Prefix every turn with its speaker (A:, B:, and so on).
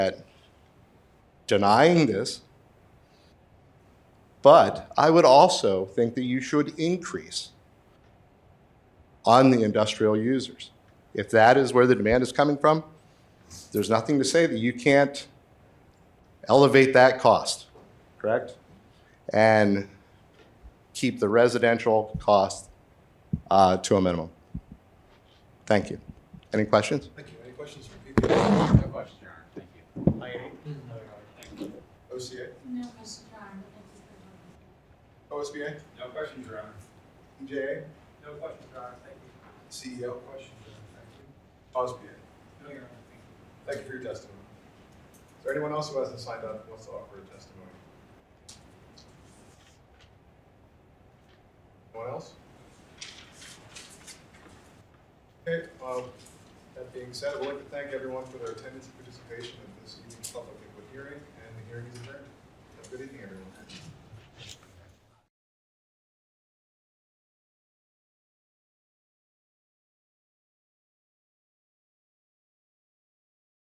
A: at denying this, but I would also think that you should increase on the industrial users. If that is where the demand is coming from, there's nothing to say that you can't elevate that cost, correct? And keep the residential cost uh, to a minimum. Thank you. Any questions?
B: Thank you. Any questions from people? No questions, Your Honor. Thank you. OCA?
C: No question, Your Honor. Thank you for your time.
B: OSBA?
D: No questions, Your Honor.
B: EJA?
D: No questions, Your Honor. Thank you.
B: CEO? E Questions? Thank you. OSBA?
D: No, Your Honor. Thank you.
B: Thank you for your testimony. Is there anyone else who hasn't signed up who wants to offer a testimony? Anyone else? Okay, um, that being said, I would like to thank everyone for their attendance and participation in this evening's public input hearing, and the hearing is adjourned. Have a good evening, everyone.